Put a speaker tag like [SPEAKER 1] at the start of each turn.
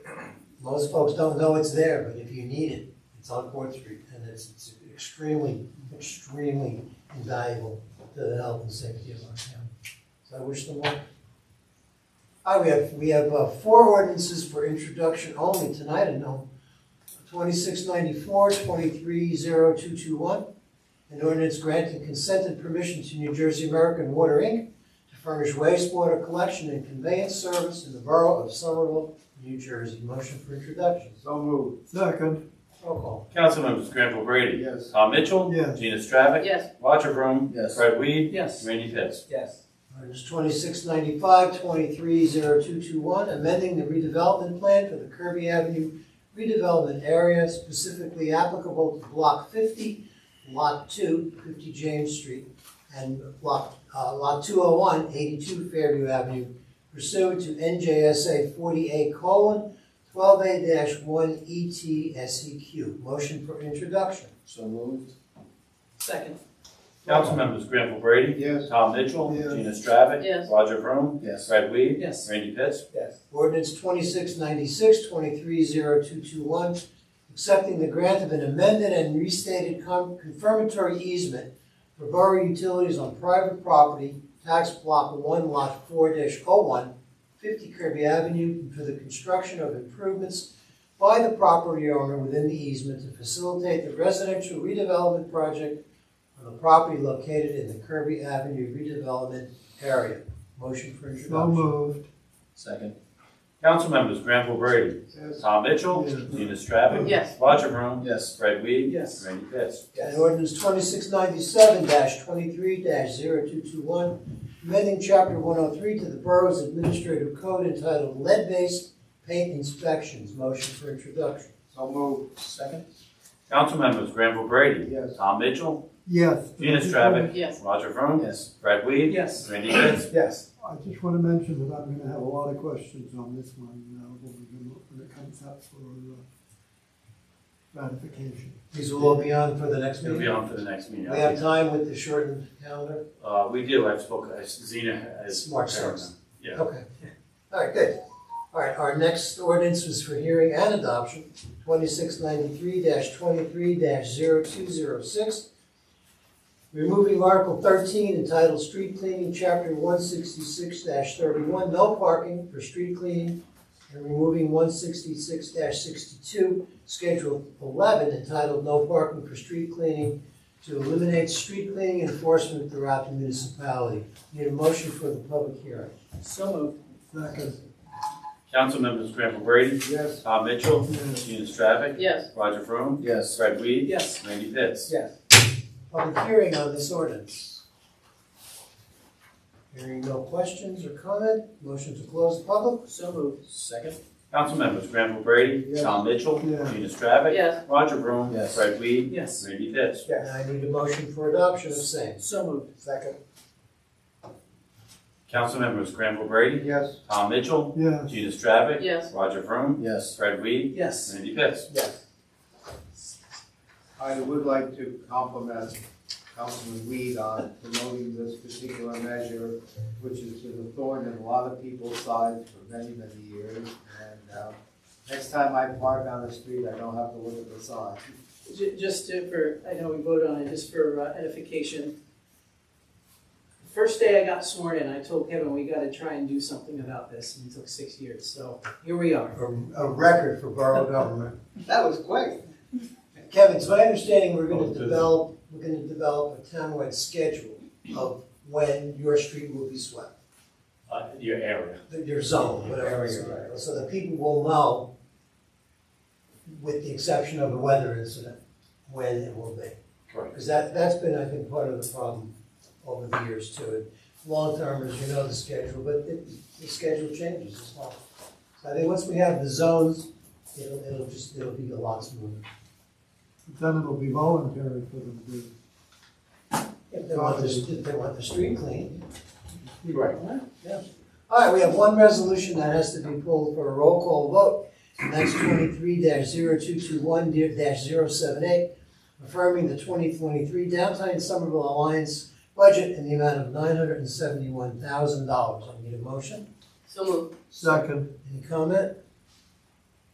[SPEAKER 1] most folks don't know it's there, but if you need it, it's on Fourth Street, and it's it's extremely, extremely invaluable to the health and safety of our town. So I wish them luck. Ah, we have, we have uh, four ordinances for introduction only tonight, I know. Twenty-six ninety-four, twenty-three zero two two one, an ordinance granting consent and permission to New Jersey American Water, Inc. to furnish wastewater collection and conveyance service in the borough of Somerville, New Jersey. Motion for introduction.
[SPEAKER 2] So moved.
[SPEAKER 3] Second,
[SPEAKER 1] Roll call.
[SPEAKER 4] Council members Granville Brady.
[SPEAKER 2] Yes.
[SPEAKER 4] Tom Mitchell.
[SPEAKER 3] Yes.
[SPEAKER 4] Gina Stravic.
[SPEAKER 5] Yes.
[SPEAKER 4] Roger Vroom.
[SPEAKER 2] Yes.
[SPEAKER 4] Fred Weed.
[SPEAKER 5] Yes.
[SPEAKER 4] Randy Pitts.
[SPEAKER 2] Yes.
[SPEAKER 1] Ordinance twenty-six ninety-five, twenty-three zero two two one, amending the redevelopment plan for the Kirby Avenue redevelopment area specifically applicable to block fifty, lot 2, 50 James Street, and block, uh, lot 201, 82 Fairview Avenue pursuant to NJSA forty-eight colon twelve A one E T S E Q. Motion for introduction.
[SPEAKER 2] So moved.
[SPEAKER 5] Second.
[SPEAKER 4] Council members Granville Brady.
[SPEAKER 2] Yes.
[SPEAKER 4] Tom Mitchell.
[SPEAKER 2] Yes.
[SPEAKER 4] Gina Stravic.
[SPEAKER 5] Yes.
[SPEAKER 4] Roger Vroom.
[SPEAKER 2] Yes.
[SPEAKER 4] Fred Weed.
[SPEAKER 5] Yes.
[SPEAKER 4] Randy Pitts.
[SPEAKER 2] Yes.
[SPEAKER 1] Ordinance twenty-six ninety-six, twenty-three zero two two one, accepting the grant of an amended and restated con- confirmatory easement for borough utilities on private property, tax block one lot four dash oh one, fifty Kirby Avenue, for the construction of improvements by the property owner within the easement to facilitate the residential redevelopment project on the property located in the Kirby Avenue redevelopment area. Motion for introduction.
[SPEAKER 3] so moved.
[SPEAKER 2] Second.
[SPEAKER 4] Council members Granville Brady.
[SPEAKER 2] Yes.
[SPEAKER 4] Tom Mitchell.
[SPEAKER 3] Yes.
[SPEAKER 4] Gina Stravic.
[SPEAKER 5] Yes.
[SPEAKER 4] Roger Vroom.
[SPEAKER 2] Yes.
[SPEAKER 4] Fred Weed.
[SPEAKER 5] Yes.
[SPEAKER 4] Randy Pitts.
[SPEAKER 1] And ordinance twenty-six ninety-seven twenty-three 221 amending chapter one oh three to the borough's administrative code entitled lead-based paint inspections. Motion for introduction.
[SPEAKER 2] So moved. Second.
[SPEAKER 4] Council members Granville Brady.
[SPEAKER 2] Yes.
[SPEAKER 4] Tom Mitchell.
[SPEAKER 3] Yes.
[SPEAKER 4] Gina Stravic.
[SPEAKER 5] Yes.
[SPEAKER 4] Roger Vroom.
[SPEAKER 2] Yes.
[SPEAKER 4] Fred Weed.
[SPEAKER 5] Yes.
[SPEAKER 4] Randy Pitts.
[SPEAKER 2] Yes.
[SPEAKER 3] I just want to mention that I'm going to have a lot of questions on this one uh, when we go- when it comes up for uh, ratification.
[SPEAKER 1] These will all be on for the next
[SPEAKER 4] It'll be
[SPEAKER 1] meeting.
[SPEAKER 4] on for the next meeting.
[SPEAKER 1] We have time with the shortened calendar?
[SPEAKER 4] Uh, we do, I've spoken, uh, Zena has.
[SPEAKER 1] March sixth.
[SPEAKER 4] Yeah.
[SPEAKER 1] Okay. All right, good. All right, our next ordinance was for hearing and adoption, twenty-six ninety-three twenty-three 206 Removing Article thirteen entitled Street Cleaning, Chapter one sixty-six thirty-one, no parking for street cleaning, and removing one sixty-six sixty-two, Schedule eleven entitled No Parking for Street Cleaning, to eliminate street cleaning enforcement throughout the municipality. Need a motion for the public hearing.
[SPEAKER 5] So moved.
[SPEAKER 3] Second,
[SPEAKER 4] Council members Granville Brady,
[SPEAKER 2] Yes.
[SPEAKER 4] Tom Mitchell,
[SPEAKER 3] Yes.
[SPEAKER 4] Gina Stravic,
[SPEAKER 5] Yes.
[SPEAKER 4] Roger Vroom,
[SPEAKER 2] Yes.
[SPEAKER 4] Fred Weed,
[SPEAKER 5] Yes.
[SPEAKER 4] Randy Pitts.
[SPEAKER 1] Yes. Public hearing on this ordinance. Hearing no questions or comment, motion to close the public?
[SPEAKER 5] So moved.
[SPEAKER 2] Second.
[SPEAKER 4] Council members Granville Brady,
[SPEAKER 2] Yes.
[SPEAKER 4] Tom Mitchell,
[SPEAKER 3] Yeah.
[SPEAKER 4] Gina Stravic,
[SPEAKER 5] Yes.
[SPEAKER 4] Roger Vroom,
[SPEAKER 2] Yes.
[SPEAKER 4] Fred Weed,
[SPEAKER 5] Yes.
[SPEAKER 4] Randy Pitts.
[SPEAKER 1] And I need a motion for adoption of same.
[SPEAKER 5] So moved.
[SPEAKER 1] Second.
[SPEAKER 4] Council members Granville Brady,
[SPEAKER 2] Yes.
[SPEAKER 4] Tom Mitchell,
[SPEAKER 3] yes,
[SPEAKER 4] Gina Stravic,
[SPEAKER 5] Yes.
[SPEAKER 4] Roger Vroom,
[SPEAKER 2] Yes.
[SPEAKER 4] Fred Weed,
[SPEAKER 5] Yes.
[SPEAKER 4] Randy Pitts.
[SPEAKER 1] Yes.
[SPEAKER 2] I would like to compliment Councilman Weed on promoting this particular measure, which has been a thorn in a lot of people's sides for many, many years. And, uh, next time I park on the street, I don't have to look at the sign.
[SPEAKER 5] Ju- Just to- for, I know we voted on it, just for uh, edification. First day I got sworn in, I told Kevin, we gotta try and do something about this, and it took six years, so here we are.
[SPEAKER 1] A, a record for borough government.
[SPEAKER 2] That was quick.
[SPEAKER 1] Kevin, it's my understanding we're
[SPEAKER 4] Oh, it
[SPEAKER 1] gonna
[SPEAKER 4] is.
[SPEAKER 1] develop, we're gonna develop a townwide schedule of when your street will be swept,
[SPEAKER 4] Uh, your area.
[SPEAKER 1] your zone, whatever. it's
[SPEAKER 2] Area,
[SPEAKER 1] called.
[SPEAKER 2] right.
[SPEAKER 1] So the people will know, with the exception of a weather incident, when it will be.
[SPEAKER 4] Correct.
[SPEAKER 1] Because that, that's been, I think, part of the problem over the years too. And Long termers, you know the schedule, but the, the schedule changes as well. So I think once we have the zones, it'll, it'll just, it'll be a lot smoother.
[SPEAKER 3] then it'll be voluntary for them to.
[SPEAKER 1] If they want the, if they want the street clean.
[SPEAKER 4] Right.
[SPEAKER 1] All right, we have one resolution that has to be pulled for a roll call vote. And that's twenty-three 221 78 affirming the twenty twenty-three downtown Somerville Alliance budget in the amount of nine hundred and seventy-one thousand dollars. I need a motion.
[SPEAKER 5] So moved.
[SPEAKER 3] Second,
[SPEAKER 1] Any comment?